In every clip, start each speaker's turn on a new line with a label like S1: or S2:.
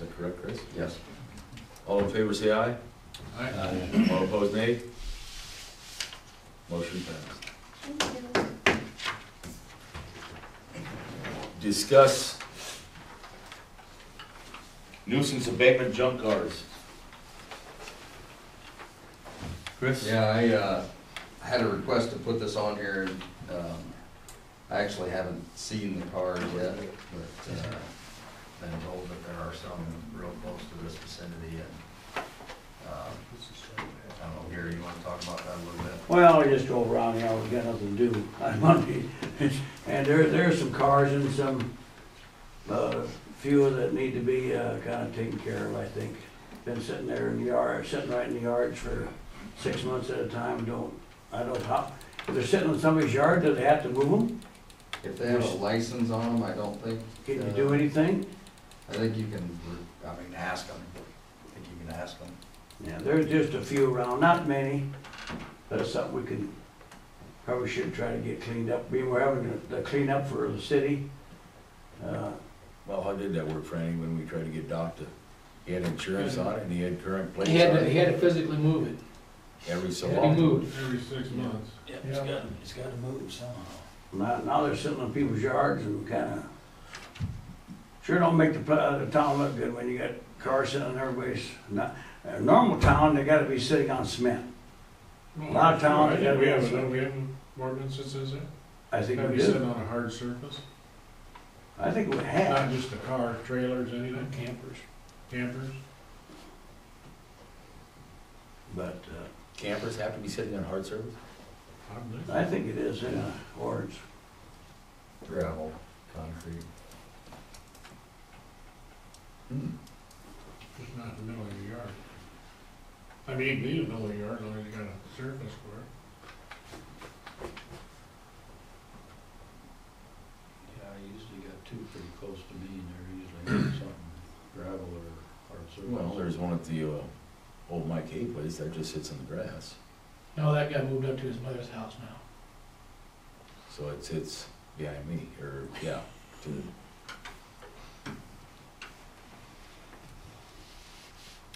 S1: that correct, Chris?
S2: Yes.
S1: All in favor, say aye.
S2: Uh,
S1: All opposed, nay. Motion passed. Discuss nuisance abatement junk cars. Chris?
S2: Yeah, I, uh, had a request to put this on here, um, I actually haven't seen the cars yet, but, uh, been told that there are some real close to this vicinity and, uh, I don't know, Gary, you wanna talk about that a little bit?
S3: Well, we just drove around here, we got nothing to do on Monday. And there, there are some cars and some, uh, few that need to be, uh, kinda taken care of, I think. Been sitting there in the yard, sitting right in the yards for six months at a time, don't, I don't, how, if they're sitting in somebody's yard, do they have to move them?
S2: If they have a license on them, I don't think,
S3: Can you do anything?
S2: I think you can, I mean, ask them, I think you can ask them.
S3: Yeah, there's just a few around, not many, but it's something we can, probably should try to get cleaned up. We were having the cleanup for the city. Uh,
S1: Well, how did that work, Franny, when we tried to get Doc to, he had insurance on it and he had current plates
S4: He had,
S1: on
S4: to- he
S1: it?
S4: had to physically move it,
S1: Every so
S4: It had to be
S1: often.
S4: moved.
S5: Every six months.
S4: Yeah, it's got, it's got to move somehow.
S3: Now, now they're sitting on people's yards and kinda, sure don't make the, pla- the town look good when you got cars sitting on everybody's, not, a normal town, they gotta be sitting on cement. A lot of towns, they gotta
S5: We
S3: be on
S5: have, uh,
S3: cement.
S5: we have ordinance that says that?
S3: I think
S5: Gotta
S3: we
S5: be sitting
S3: do,
S5: on a hard surface,
S3: I think we
S5: not
S3: have,
S5: just a car, trailers, anything. Campers. Campers.
S3: but, uh,
S1: Campers have to be sitting on hard service?
S5: probably.
S3: I think it is in a orange.
S2: Gravel, concrete.
S5: Just not in the middle of your yard. I mean, you can be in the middle of your yard, as long as you got a surface for it.
S4: Yeah, I usually got two pretty close to me, and they're usually something gravel or hard
S1: Well, there's one at the, uh, old Mike Hay place that just sits in the grass,
S4: No, that guy moved up to his mother's house now.
S1: so it sits behind me, or, yeah, to the.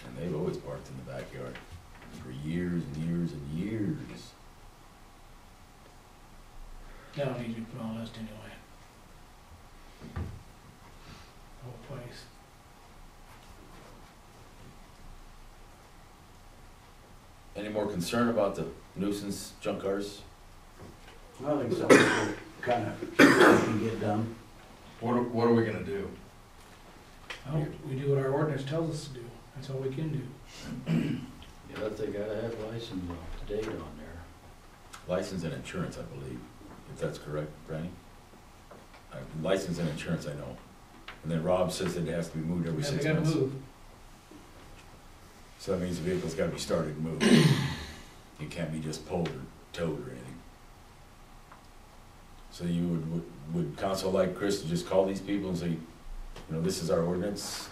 S1: And they've always parked in the backyard for years and years and years.
S4: That'll need to be put on a list anyway. Whole place.
S1: Any more concern about the nuisance junk cars?
S3: I think something kinda, can get done.
S2: What, are- what are we gonna do?
S4: Oh, we do what our ordinance tells us to do, that's all we can do. Yeah, but they gotta have license up to date on there.
S1: License and insurance, I believe, if that's correct, Brandy? Uh, License and insurance, I know. And then Rob says that it has to be moved every
S4: Yeah, they
S1: six
S4: gotta
S1: months.
S4: move.
S1: So that means the vehicle's gotta be started and moved. It can't be just pulled or towed or anything. So you would, would, would counsel like Chris to just call these people and say, you know, this is our ordinance?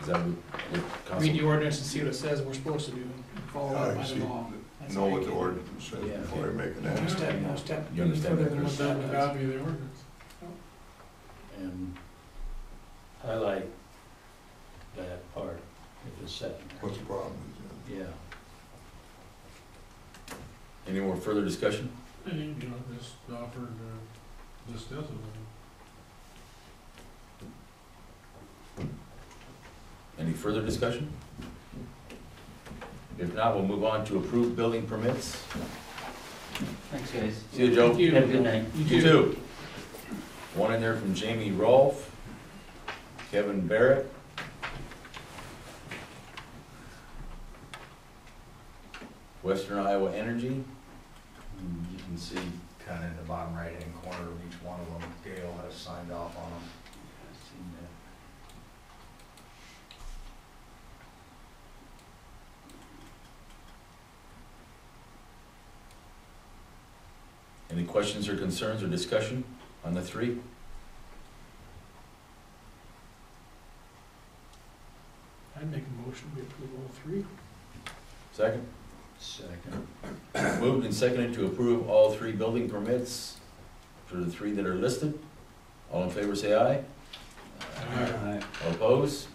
S1: Is that what, what
S4: Read
S1: counsel?
S4: the ordinance and see what it says we're supposed to do, and follow
S6: Yeah,
S4: it by
S6: I see.
S4: the law. That's
S6: know
S4: all
S6: what
S4: you
S6: the
S4: can do.
S6: ordinance says
S1: Yeah.
S6: before you make an
S4: No
S6: action.
S4: step, no step.
S1: You understand
S4: further
S1: that,
S4: than what
S1: Chris?
S4: that
S5: That would
S4: does.
S5: not be the ordinance.
S7: And I like that part, if it's set,
S6: What's the problem? is, uh,
S7: yeah.
S1: Any more further discussion?
S5: And you can just offer, uh, this doesn't.
S1: Any further discussion? If not, we'll move on to approved building permits.
S7: Thanks, guys.
S1: See you, Joe.
S4: Thank you.
S7: Have a good night.
S4: You too.
S1: too. One in there from Jamie Rolfe, Kevin Barrett. Western Iowa Energy,
S2: And You can see kind of in the bottom right-hand corner of each one of them, Gail has signed off on them.
S7: I've seen that.
S1: any questions or concerns or discussion on the three?
S5: I'd make a motion, we approve all three.
S1: Second?
S7: Second.
S1: Moved and seconded to approve all three building permits for the three that are listed. All in favor, say aye.
S3: I
S1: All opposed?